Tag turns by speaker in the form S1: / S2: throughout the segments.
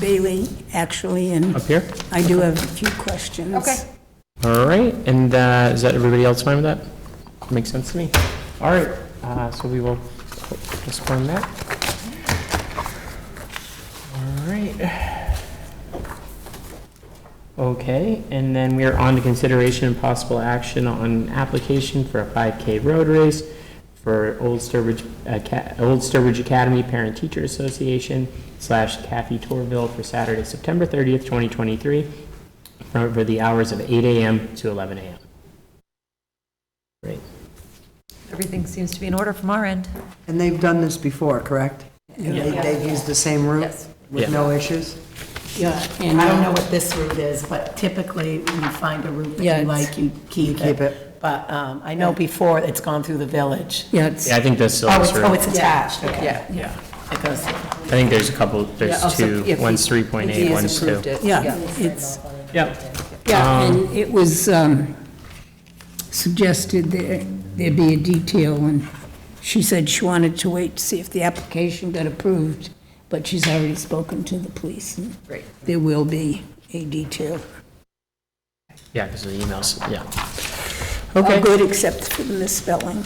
S1: Bailey, actually, and
S2: Up here?
S1: I do have a few questions.
S3: Okay.
S2: All right, and uh, is that, everybody else fine with that? Makes sense to me. All right, uh, so we will postpone that. All right. Okay, and then we are on to consideration and possible action on an application for a 5K road race for Old Sturbridge, uh, Ca- Old Sturbridge Academy Parent Teacher Association slash Kathy Torville for Saturday, September 30th, 2023, for for the hours of 8 AM to 11 AM. Great.
S3: Everything seems to be in order from our end.
S4: And they've done this before, correct? And they- they've used the same route?
S3: Yes.
S4: With no issues?
S5: Yeah, and I don't know what this route is, but typically, when you find a route
S1: Yeah,
S5: that you
S1: it's-
S5: like, you keep it.
S4: keep it.
S5: But um, I know before, it's gone through the village.
S1: Yeah, it's,
S2: Yeah, I think that's still.
S5: Oh,
S2: this
S5: it's, oh,
S2: room.
S5: it's attached, okay.
S3: Yeah.
S2: Yeah,
S5: It goes,
S2: I think there's a couple, there's two, one's 3.8, one's 2.
S1: yeah, it's,
S2: Yep,
S1: yeah, and it was um, suggested that there be a detail, and she said she wanted to wait to see if the application got approved, but she's already spoken to the police, and
S3: Great.
S1: there will be a detail.
S2: yeah, because of the emails, yeah.
S1: All
S2: Okay.
S1: good except for the misspelling.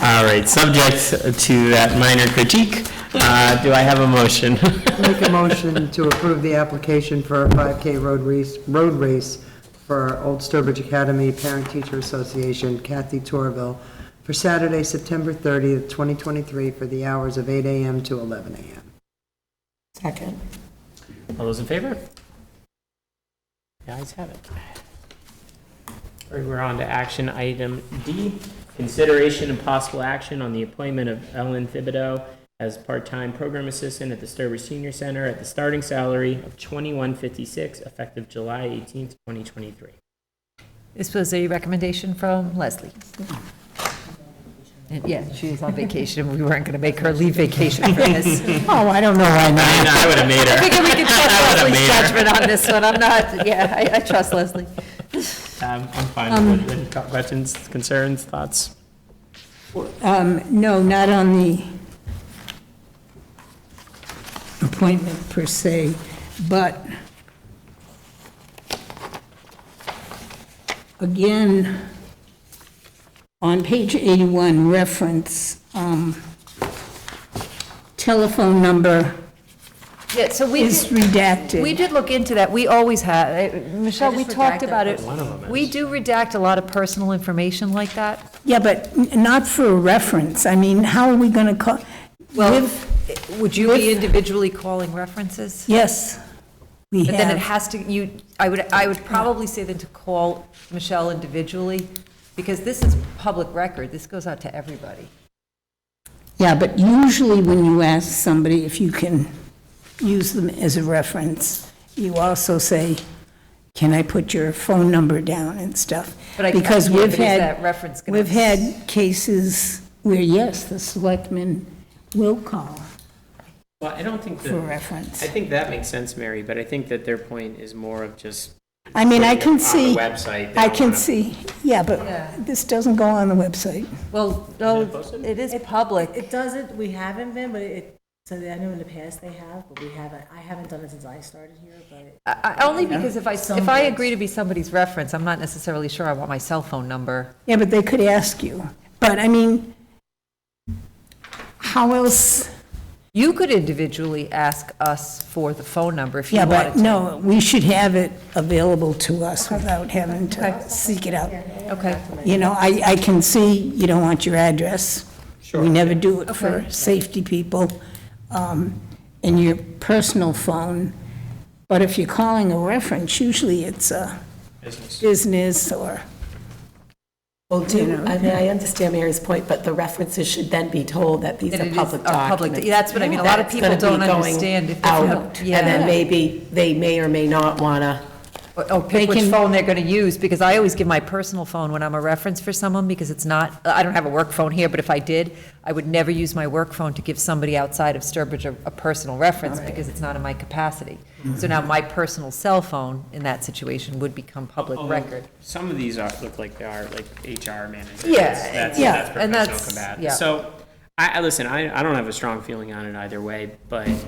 S2: All right, subject to that minor critique, uh, do I have a motion?
S4: Make a motion to approve the application for a 5K road race, road race for Old Sturbridge Academy Parent Teacher Association, Kathy Torville, for Saturday, September 30th, 2023, for the hours of 8 AM to 11 AM.
S5: second.
S2: All those in favor? The ayes have it. All right, we're on to action item D, consideration and possible action on the appointment of Ellen Thibodeau as part-time program assistant at the Sturbridge Senior Center at the starting salary of twenty-one fifty-six, effective July eighteenth, twenty twenty-three.
S3: This was a recommendation from Leslie. And yeah, she was on vacation, and we weren't going to make her leave vacation for this.
S5: Oh, I don't know why not.
S2: I would have made
S3: I
S2: her.
S3: figure we can trust
S2: I would've
S3: Leslie's
S2: made her.
S3: judgment on this one, I'm not, yeah, I, I trust Leslie.
S2: Um, I'm fine with it. Any Questions, concerns, thoughts?
S1: Um, No, not on the appointment per se, but again, on page 81, reference um, telephone number
S3: Yeah, so we.
S1: is redacted.
S3: We did look into that, we always have, Uh, Michelle, we
S5: just
S3: talked
S5: redacted
S3: about it.
S2: One of 'em
S3: We do redact a lot of personal information like that.
S1: Yeah, but n- not for a reference. I mean, how are we going to call?
S3: Well,
S1: With-
S3: would you be individually calling references?
S1: Yes, we
S3: But then
S1: have.
S3: it has to, you, I would, I would probably say then to call Michelle individually, because this is public record, this goes out to everybody.
S1: Yeah, but usually when you ask somebody if you can use them as a reference, you also say, can I put your phone number down and stuff?
S3: But I-
S1: Because
S3: yeah,
S1: we've
S3: but is
S1: had.
S3: that reference gonna-
S1: We've had cases where, yes, the selectmen will call
S2: Well, I don't think
S1: for
S2: that,
S1: reference.
S2: I think that makes sense, Mary, but I think that their point is more of just.
S1: I mean, I
S2: putting
S1: can
S2: it
S1: see,
S2: On the website. they
S1: I
S2: don't
S1: can
S2: wanna-
S1: see, yeah,
S3: Yeah.
S1: but this doesn't go on the website.
S3: Well, no, it is public.
S6: It doesn't, we haven't been, but it, so I know in the past they have, but we haven't, I haven't done it since I started here, but.
S3: I- I- Only because if I, if I agree to be somebody's reference, I'm not necessarily sure I want my cell phone number.
S1: Yeah, but they could ask you. But I mean, how else?
S3: You could individually ask us for the phone number if you
S1: Yeah, but
S3: wanted to.
S1: no, we should have it available to us without having to seek it out.
S3: Okay,
S1: You know, I, I can see you don't want your address. We never do it for
S3: Okay.
S1: safety people, um, and your personal phone. But if you're calling a reference, usually it's a business or,
S5: Well, do, I mean, I understand Mary's point, but the references should then be told that these
S3: That
S5: are
S3: it is
S5: public
S3: a public-
S5: documents.
S3: yeah, that's what I mean. A lot of
S5: That's
S3: people
S5: gonna be
S3: don't
S5: going
S3: understand if they
S5: out,
S3: don't.
S5: And
S3: Yeah.
S5: then maybe, they may or may not want to
S3: Or- or pick which Oh, phone they're going to use, because I always give my personal phone when I'm a reference for someone, because it's not, I don't have a work phone here, but if I did, I would never use my work phone to give somebody outside of Sturbridge a, a personal reference, because it's not in my capacity. So now my personal cell phone in that situation would become public
S2: Although,
S3: record.
S2: Some of these are, look like they are like HR managers.
S3: Yeah,
S2: That's-
S3: yeah,
S2: That's professional
S3: and that's-
S2: combat.
S3: yeah.
S2: So, I, I, listen, I, I don't have a strong feeling on it either way, but um,